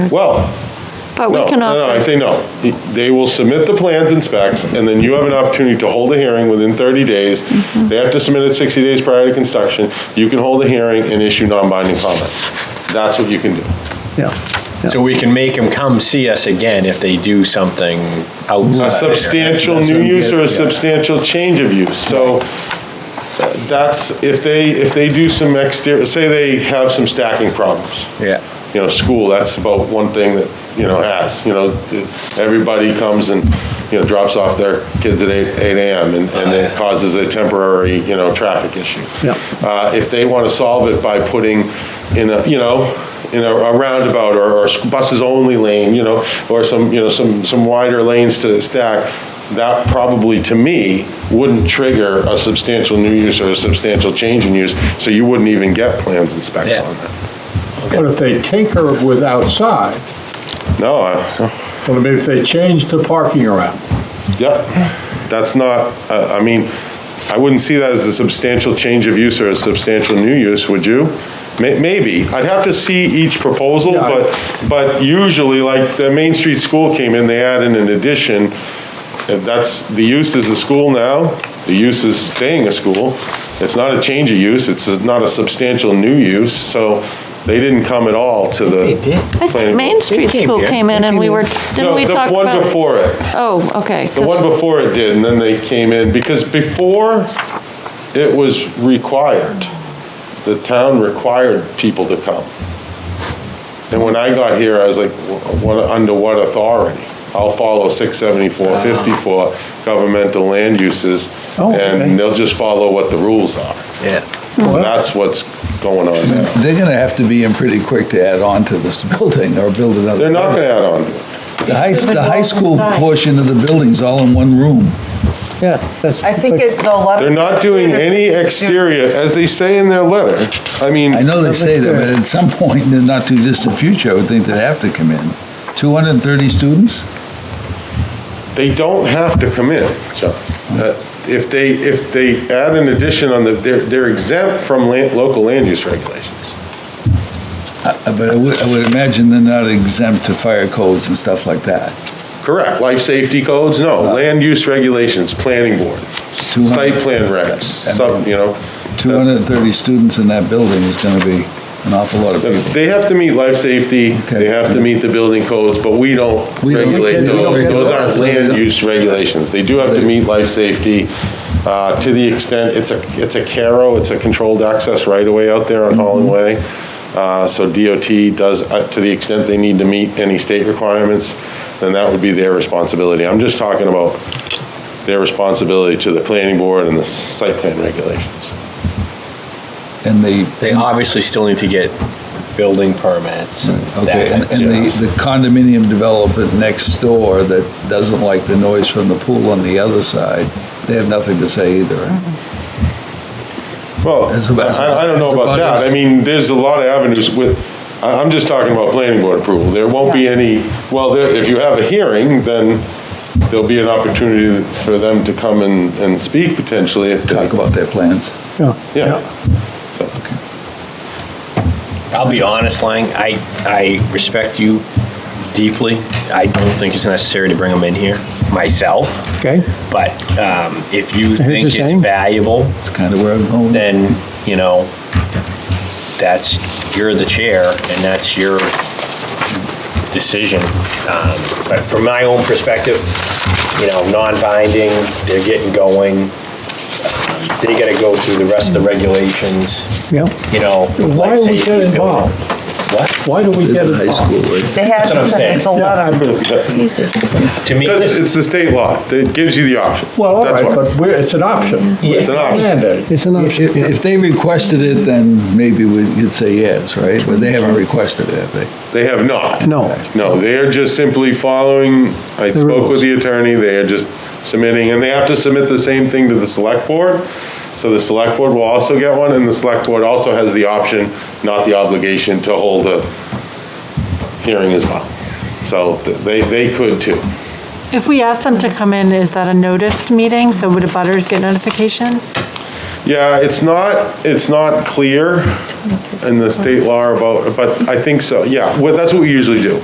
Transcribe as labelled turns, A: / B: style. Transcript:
A: Well,
B: But
A: no,
B: we
A: no,
B: can
A: no, I
B: offer,
A: say no. They will submit the plans and specs, and then you have an opportunity to hold a hearing within 30 days.
B: Mm-hmm.
A: They have to submit it 60 days prior to construction. You can hold a hearing and issue non-binding comments. That's what you can do.
C: yeah.
D: So we can make them come see us again if they do something outside.
A: A substantial
D: That's
A: new
D: what I'm
A: use or a
D: getting at.
A: substantial change of use. So uh, that's, if they, if they do some exterior, say they have some stacking problems.
D: Yeah.
A: you know, school, that's about one thing that, you know, has, you know, everybody comes and, you know, drops off their kids at eight, eight AM and, and it causes a temporary, you know, traffic issue.
C: Yeah.
A: Uh, if they want to solve it by putting in a, you know, in a a roundabout or, or buses only lane, you know, or some, you know, some, some wider lanes to stack, that probably, to me, wouldn't trigger a substantial new use or a substantial change in use, so you wouldn't even get plans and specs
D: Yeah.
A: on that.
E: But if they tinker with outside,
A: No, I,
E: well, I mean, if they change the parking around,
A: Yep, that's not, I I mean, I wouldn't see that as a substantial change of use or a substantial new use, would you? May- Maybe, I'd have to see each proposal,
E: Yeah, I-
A: but, but usually, like, the Main Street School came in, they added an addition, and that's, the use is a school now, the use is staying a school, it's not a change of use, it's not a substantial new use, so they didn't come at all to the.
D: they did.
B: I
A: planning
B: think Main
A: board.
B: Street
D: came
B: School
D: here.
B: came in and we were,
A: No,
B: didn't we
A: the
B: talk
A: one
B: about?
A: before it.
B: Oh, okay.
A: The one
B: 'cause-
A: before it did, and then they came in, because before, it was required. The town required people to come. And when I got here, I was like, "Wh- what, under what authority? I'll follow 674, 54 governmental land uses,
C: Oh, okay.
A: and they'll just follow what the rules are.
D: Yeah.
A: So that's what's going on now.
F: They're going to have to be in pretty quick to add on to this building or build another.
A: They're not gonna add on to it.
F: The high, the high school portion of the building's all in one room.
C: Yeah, that's.
G: I think it, a lot of.
A: They're not doing any exterior, as they say in their letter. I mean.
F: I know they say that, but at some point in the not too distant future, I would think they'd have to come in. 230 students?
A: They don't have to come in, John. Uh, If they, if they add an addition on the, they're they're exempt from land- local land use regulations.
F: Uh, But I would, I would imagine they're not exempt to fire codes and stuff like that.
A: Correct, life safety codes, no, land use regulations, planning board, site plan regs, some, you know.
F: 230 students in that building is going to be an awful lot of people.
A: They have to meet life safety, they have to meet the building codes, but we don't
F: We don't-
A: regulate
F: we don't
A: those.
F: regulate
A: Those aren't
F: those, so we
A: land
F: don't-
A: use regulations. They do have to meet life safety uh, to the extent, it's a, it's a CARO, it's a controlled access right-of-way out there on Holland Way.
F: Mm-hmm.
A: Uh, So DOT does, uh, to the extent they need to meet any state requirements, then that would be their responsibility. I'm just talking about their responsibility to the planning board and the site plan regulations.
F: And the,
D: They obviously still need to get building permits and
F: okay,
D: that.
F: and
D: type of
F: and
D: stuff.
F: the the condominium development next door that doesn't like the noise from the pool on the other side, they have nothing to say either, right?
D: Mm-hmm.
A: Well,
F: As a- as a-
A: I, I don't know
F: as a
A: about that.
F: butters.
A: I mean, there's a lot of avenues with, I, I'm just talking about planning board approval. There won't be any, well, there, if you have a hearing, then there'll be an opportunity for them to come and, and speak potentially if they.
F: talk about their plans.
C: Yeah,
A: Yeah. So,
D: I'll be honest, Lang, I, I respect you deeply. I don't think it's necessary to bring them in here myself,
C: okay.
D: but um, if
C: hear
D: you
C: what
D: think
C: you're
D: it's
C: saying.
D: valuable,
F: That's kind of where I'm going.
D: then, you know, that's, you're the chair, and that's your decision. Um, But from my own perspective, you know, non-binding, they're getting going, Um, they gotta go through the rest of the regulations,
C: Yeah.
D: you know.
E: why do we
D: life safety,
E: get involved?
D: What?
E: Why do we
F: It's
E: get
F: a high
E: involved?
F: school, right?
G: They have
D: That's what I'm
G: to,
D: saying.
G: there's a lot of.
D: To me,
A: Because it's the state law. It gives you the option.
E: Well, all
A: That's
E: right,
A: why.
E: but we're, it's an option.
A: It's an option.
E: Mandate.
C: It's an option,
F: If
C: yeah.
F: if they requested it, then maybe we could say yes, right? But they haven't requested it, have they?
A: They have not.
C: No.
A: No, they are just simply following, I spoke with
C: rules.
A: the attorney, they are just submitting, and they have to submit the same thing to the select board. So the select board will also get one, and the select board also has the option, not the obligation, to hold a hearing as well. So th- they, they could too.
H: If we ask them to come in, is that a noticed meeting? So would abutters get notification?
A: Yeah, it's not, it's not clear in the state law about, but I think so, yeah, well, that's what we usually do.